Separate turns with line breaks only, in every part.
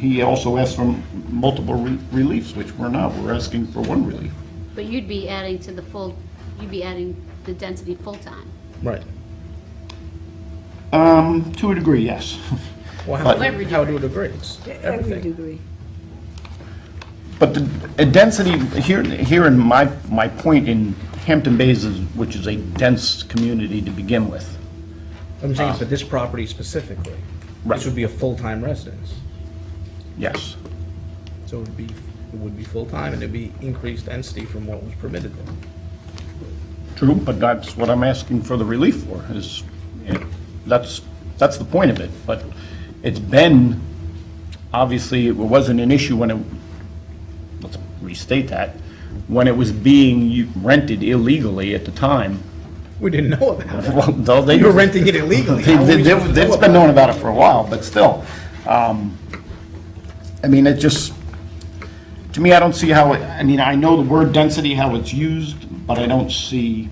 He also asked for multiple re- reliefs, which we're not. We're asking for one relief.
But you'd be adding to the full, you'd be adding the density full-time.
Right.
Um, to a degree, yes.
Well, how,
But-
how do it agree? It's
Every
everything.
degree.
But the a density, here, here in my, my point in Hampton Bays is, which is a dense community to begin with.
I'm saying for this property specifically.
Right.
This would be a full-time residence.
Yes.
So it would be, it would be full-time and it'd be increased density from what was permitted there.
True, but that's what I'm asking for the relief for, is, it- that's, that's the point of it. But it's been, obviously, it wasn't an issue when it, let's restate that, when it was being u- rented illegally at the time.
We didn't know about it.
Well, though they-
You were renting it illegally.
They-
How were we
they-
supposed to
they-
know
It's been
about
known about it for a while, but still. um, I mean, it just, to me, I don't see how, it- I mean, I know the word density, how it's used, but I don't see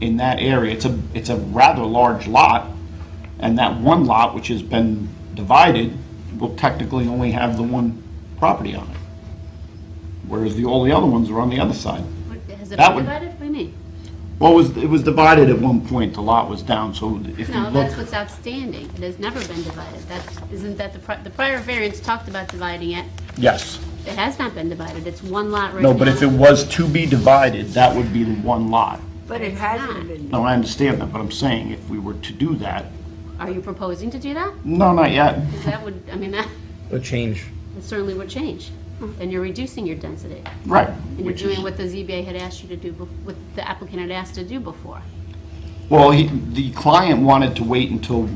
in that area, it's a, it's a rather large lot, and that one lot, which has been divided, will technically only have the one property on it. Whereas the, all the other ones are on the other side.
What- Has it
That
been
would-
divided? What do you mean?
Well, it was, it was divided at one point, the lot was down, so if you
No,
look.
that's what's outstanding. It has never been divided. That's, isn't that the, pri- the prior variance talked about dividing it.
Yes.
It has not been divided. It's one lot right now.
No, but if it was to be divided, that would be the one lot.
But it hasn't been.
No, I understand that, but I'm saying if we were to do that,
Are you proposing to do that?
no, not yet.
'Cause that would, I mean, that
it? A change.
certainly would change. Then you're reducing your density.
Right.
And you're
which is-
doing what the ZBA had asked you to do, bef- what the applicant had asked to do before.
Well, he, the client wanted to wait until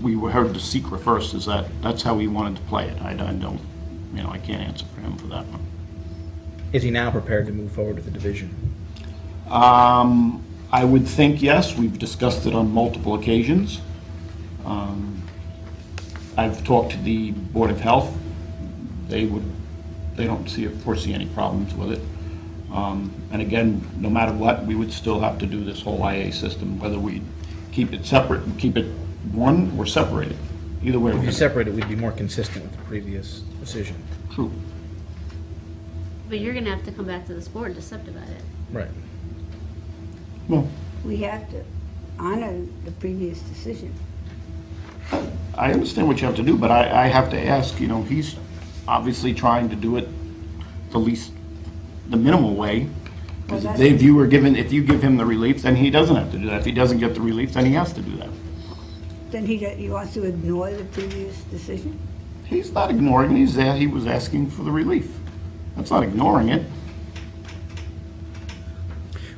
we were heard the secret first, is that, that's how he wanted to play it. I I don't, you know, I can't answer for him for that one.
Is he now prepared to move forward with the division?
Um, I would think yes, we've discussed it on multiple occasions. Um, I've talked to the Board of Health, they would, they don't see, foresee any problems with it. Um, And again, no matter what, we would still have to do this whole IA system, whether we keep it separate, keep it one or separate it, either way. we're
If
gonna-
you separate it, we'd be more consistent with the previous decision.
True.
But you're gonna have to come back to this board to subdivide it.
Right.
Well,
We have to honor the previous decision.
I understand what you have to do, but I, I have to ask, you know, he's obviously trying to do it the least, the minimal way. Because
Well,
if
that's-
they, if you were given, if you give him the relief, then he doesn't have to do that. If he doesn't get the relief, then he has to do that.
Then he, he wants to ignore the previous decision?
He's not ignoring, it. he's, a- he was asking for the relief. That's not ignoring it.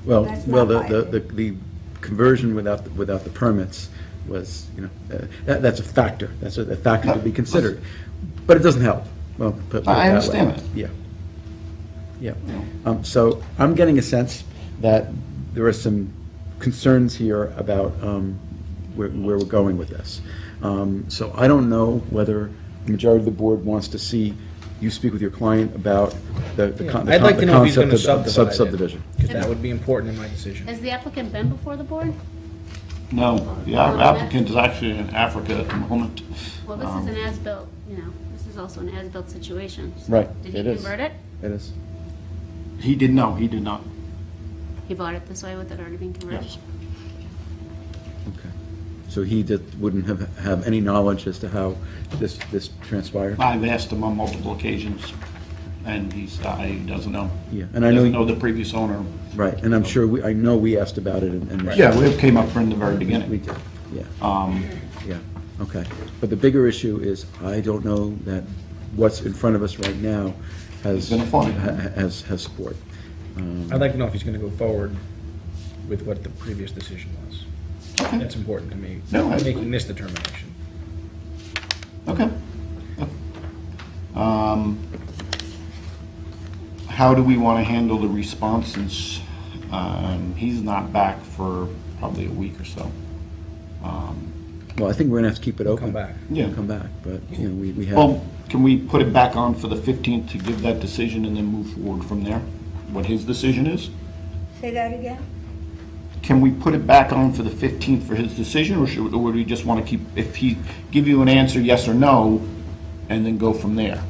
Well,
That's
well, the,
not
the, the the conversion without, without the permits was, you know, uh, that, that's a factor, that's a, a factor to be considered, but it doesn't help, well, put put it that way.
I understand that.
Yeah. Yeah, um, so I'm getting a sense that there are some concerns here about, um, where, where we're going with this. Um, so I don't know whether the majority of the board wants to see you speak with your client about the, the con-
Yeah, I'd like to
the
know if he's going
concept
to
of sub-
subdivide it.
subdivision.
Because that would be important in my decision.
Has the applicant been before the board?
No, the app- applicant is actually in Africa at the moment.
Well, this is an
Um,
as-built, you know, this is also an as-built situation. So
Right,
Did he
it is.
convert it?
It is.
He did, no, he did not,
He bought it this way with it already being converted?
yes.
Okay. So he just wouldn't have, have any knowledge as to how this, this transpired?
I've asked him on multiple occasions, and he's, uh, he doesn't know.
Yeah, and I know
Doesn't
you-
know the previous owner.
Right, and I'm sure, we I know we asked about it and. and-
Yeah, we came up from the very
We
beginning.
did, yeah,
Um,
yeah, okay. But the bigger issue is, I don't know that what's in front of us right now has.
It's gonna fly.
ha- ha- Has, has support. Um,
I'd like to know if he's going to go forward with what the previous decision was. That's important to me,
No, I-
making this determination.
Okay. Um, How do we want to handle the responses? Um, He's not back for probably a week or so.
Well, I think we're gonna have to keep it open.
Come back.
Yeah.
Come back, but, you know, we, we have.
Well, can we put it back on for the 15th to give that decision and then move forward from there? What his decision is?
Say that again?
Can we put it back on for the 15th for his decision, or should, or would we just want to keep, if he give you an answer, yes or no, and then go from there.